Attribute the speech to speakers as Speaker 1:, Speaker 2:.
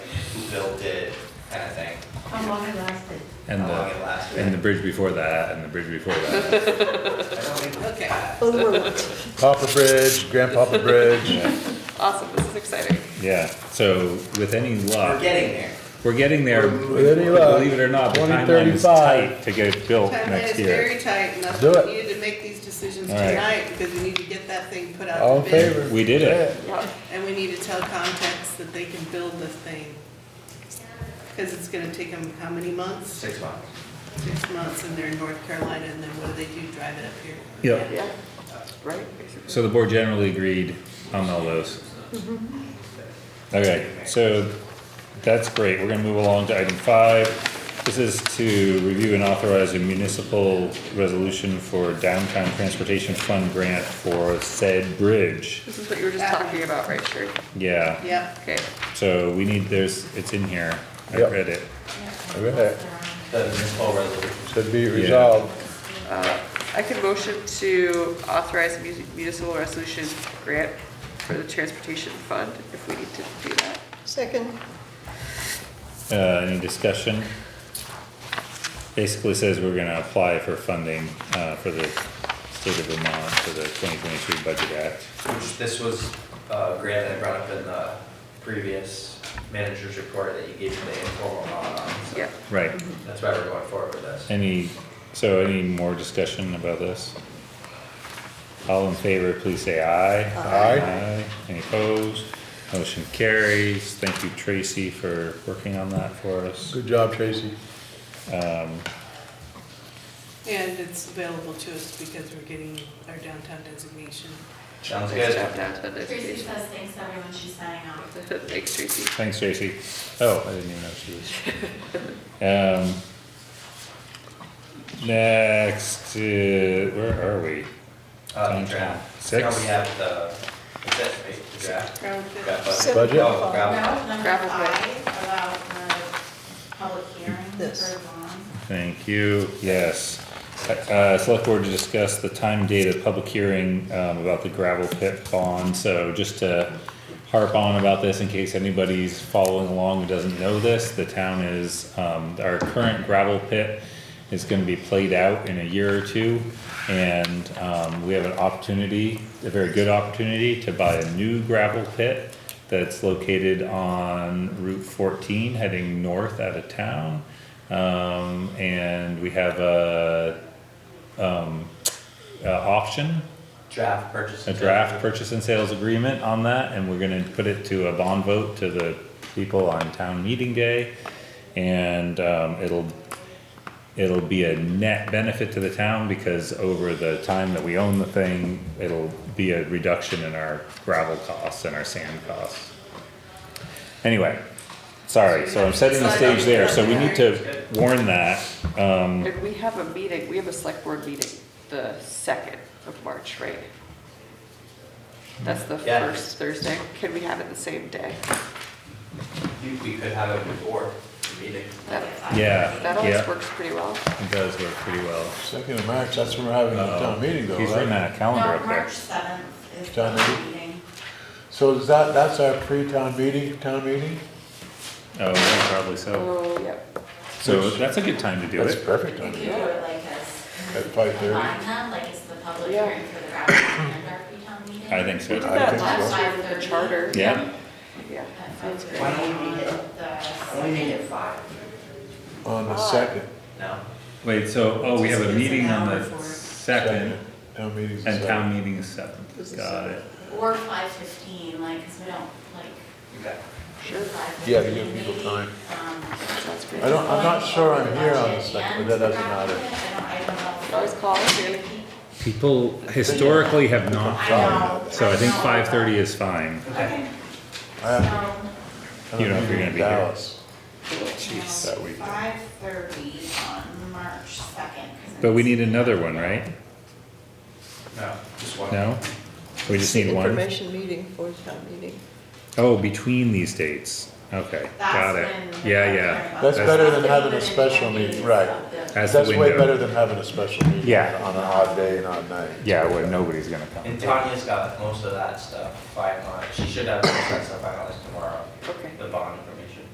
Speaker 1: built it, kind of thing.
Speaker 2: How long it lasted?
Speaker 3: And
Speaker 1: How long it
Speaker 3: the,
Speaker 1: lasted.
Speaker 3: and the bridge before that, and the bridge before that.
Speaker 1: I don't think
Speaker 4: Okay.
Speaker 5: Papa Bridge, Grandpapa Bridge.
Speaker 4: Awesome, this is exciting.
Speaker 3: Yeah, so with any
Speaker 1: we're
Speaker 3: luck,
Speaker 1: getting there.
Speaker 3: we're getting there,
Speaker 1: We're moving
Speaker 5: With any
Speaker 1: forward.
Speaker 5: luck.
Speaker 3: believe it or not, the timeline is
Speaker 5: 2035.
Speaker 3: tight to get it built
Speaker 4: Timeline is
Speaker 3: next
Speaker 4: very
Speaker 3: year.
Speaker 4: tight, and that's
Speaker 5: Do
Speaker 4: why
Speaker 5: it.
Speaker 4: we needed to make these decisions
Speaker 3: All right.
Speaker 4: tonight, because we need to get that thing put out
Speaker 5: All in
Speaker 4: to bid.
Speaker 5: favor?
Speaker 3: We did it.
Speaker 4: And we need to tell Context that they can build this thing. Because it's gonna take them how many months?
Speaker 1: Six months.
Speaker 4: Six months, and they're in North Carolina, and then what do they do, drive it up here?
Speaker 3: Yeah.
Speaker 6: Yeah, right, basically.
Speaker 3: So the board generally agreed on all those. Okay, so that's great. We're gonna move along to item five. This is to review and authorize a municipal resolution for downtown transportation fund grant for said bridge.
Speaker 6: This is what you were just talking about, right, Sherry?
Speaker 3: Yeah,
Speaker 4: Yep,
Speaker 6: Okay,
Speaker 3: so we need, there's, it's in here. I
Speaker 5: Yep.
Speaker 3: read it.
Speaker 5: Okay,
Speaker 1: The municipal resolution.
Speaker 5: should be resolved.
Speaker 6: I can motion to authorize a mu- municipal resolution grant for the transportation fund if we need to do that.
Speaker 7: Second,
Speaker 3: Uh, any discussion? Basically says we're gonna apply for funding, uh, for the state of Vermont for the twenty twenty-three budget act.
Speaker 1: Which this was a grant that I brought up in the previous manager's report that you gave me the informal nod on. so
Speaker 6: Yeah,
Speaker 3: Right,
Speaker 1: That's why we're going forward with this.
Speaker 3: any, so any more discussion about this? All in favor, please say aye.
Speaker 5: Aye.
Speaker 3: Aye, any opposed? Motion carries, thank you Tracy for working on that for us.
Speaker 5: Good job, Tracy.
Speaker 4: and it's available to us because we're getting our downtown designation.
Speaker 1: Sounds
Speaker 6: nice
Speaker 1: good.
Speaker 6: job, downtown
Speaker 8: Tracy
Speaker 6: education.
Speaker 8: says thanks to everyone she's signing off.
Speaker 6: Thanks, Tracy.
Speaker 3: Thanks Tracy. Oh, I didn't even know she was. Um, next, uh, where are we?
Speaker 1: Uh, the draft.
Speaker 3: Six.
Speaker 1: Now we have the, is that right, the draft?
Speaker 4: Crown Vic.
Speaker 1: Draft budget.
Speaker 5: Budget?
Speaker 1: Oh, draft.
Speaker 8: Now, number
Speaker 6: Gravel pit.
Speaker 8: five, about the public hearing
Speaker 7: This.
Speaker 8: for bond.
Speaker 3: Thank you, yes. Uh, select board to discuss the time, date of public hearing, um, about the gravel pit bond, so just to harp on about this in case anybody's following along who doesn't know this, the town is, um, our current gravel pit is gonna be played out in a year or two, and, um, we have an opportunity, a very good opportunity to buy a new gravel pit that's located on Route fourteen, heading north out of town. Um, and we have a, um, a option,
Speaker 1: Draft purchase.
Speaker 3: a draft purchase and sales agreement on that, and we're gonna put it to a bond vote to the people on town meeting day. And, um, it'll, it'll be a net benefit to the town because over the time that we own the thing, it'll be a reduction in our gravel costs and our sand costs. Anyway, sorry, so I'm setting the stage there, so we need to warn that, um,
Speaker 6: And we have a meeting, we have a select board meeting the second of March, right? That's the
Speaker 1: Yeah.
Speaker 6: first Thursday. Can we have it the same day?
Speaker 1: You- We could have it before the meeting.
Speaker 6: That,
Speaker 3: yeah,
Speaker 6: that always
Speaker 3: yeah,
Speaker 6: works pretty well.
Speaker 3: it does work pretty well.
Speaker 5: Second of March, that's when we're having a town meeting though,
Speaker 3: Oh, He's written
Speaker 5: right?
Speaker 3: a calendar
Speaker 8: No,
Speaker 3: up there.
Speaker 8: March seventh is
Speaker 5: Town
Speaker 8: the
Speaker 5: meeting?
Speaker 8: meeting.
Speaker 5: So is that, that's our pre-town meeting, town meeting?
Speaker 3: Oh, yeah, probably so.
Speaker 6: Oh, yep.
Speaker 3: So that's a good time to do
Speaker 5: That's
Speaker 3: it.
Speaker 5: perfect
Speaker 8: We
Speaker 5: timing.
Speaker 8: could do it like as.
Speaker 5: At 5:30.
Speaker 8: Line up, like it's the public
Speaker 6: Yeah.
Speaker 8: hearing for the gravel and our pre-town meeting.
Speaker 3: I think so.
Speaker 6: We did
Speaker 5: I
Speaker 6: that
Speaker 5: think
Speaker 6: last
Speaker 8: so.
Speaker 6: year with the charter.
Speaker 3: Yeah,
Speaker 6: Yeah.
Speaker 8: At five thirty
Speaker 1: Why don't we
Speaker 8: on
Speaker 1: meet at-
Speaker 8: the
Speaker 1: why don't we meet at
Speaker 8: second.
Speaker 1: five?
Speaker 5: On the second.
Speaker 1: No?
Speaker 3: wait, so, oh, we have a
Speaker 4: Just
Speaker 3: meeting
Speaker 4: an
Speaker 3: on
Speaker 4: hour
Speaker 3: the
Speaker 4: for it.
Speaker 3: second
Speaker 5: Town meeting's the
Speaker 3: and
Speaker 5: second.
Speaker 3: town meeting is seventh. Got it.
Speaker 8: Or five fifteen, like, cause we don't, like,
Speaker 1: Okay.
Speaker 6: Sure.
Speaker 8: five fifteen. um,
Speaker 5: Yeah, to give people time.
Speaker 6: Sounds great.
Speaker 5: I don't, I'm not sure I'm here on the second, but that doesn't matter.
Speaker 8: I don't, I don't know.
Speaker 6: Always call us, Jamie.
Speaker 3: People historically have not
Speaker 8: I
Speaker 3: done
Speaker 8: know.
Speaker 3: it, so I think five thirty is fine.
Speaker 1: Okay.
Speaker 5: I have-
Speaker 8: So,
Speaker 5: I have
Speaker 3: You know if
Speaker 5: a
Speaker 3: you're
Speaker 5: meeting
Speaker 3: gonna be
Speaker 5: in
Speaker 3: here.
Speaker 5: Dallas.
Speaker 3: Jeez, that week.
Speaker 8: Five thirty on March second.
Speaker 3: But we need another one, right?
Speaker 1: No, just one.
Speaker 3: No? We just need one?
Speaker 7: information meeting for town meeting.
Speaker 3: Oh, between these dates. Okay, got it. Yeah, yeah.
Speaker 5: That's better than having a special meeting, right.
Speaker 3: As the
Speaker 5: That's way better
Speaker 3: window.
Speaker 5: than having a special meeting.
Speaker 3: Yeah.
Speaker 5: On an odd day and odd night.
Speaker 3: Yeah, where nobody's gonna
Speaker 1: And
Speaker 3: come.
Speaker 1: Tanya's got most of that stuff by March. She should have most of that stuff by March tomorrow.
Speaker 6: Okay.
Speaker 1: The bond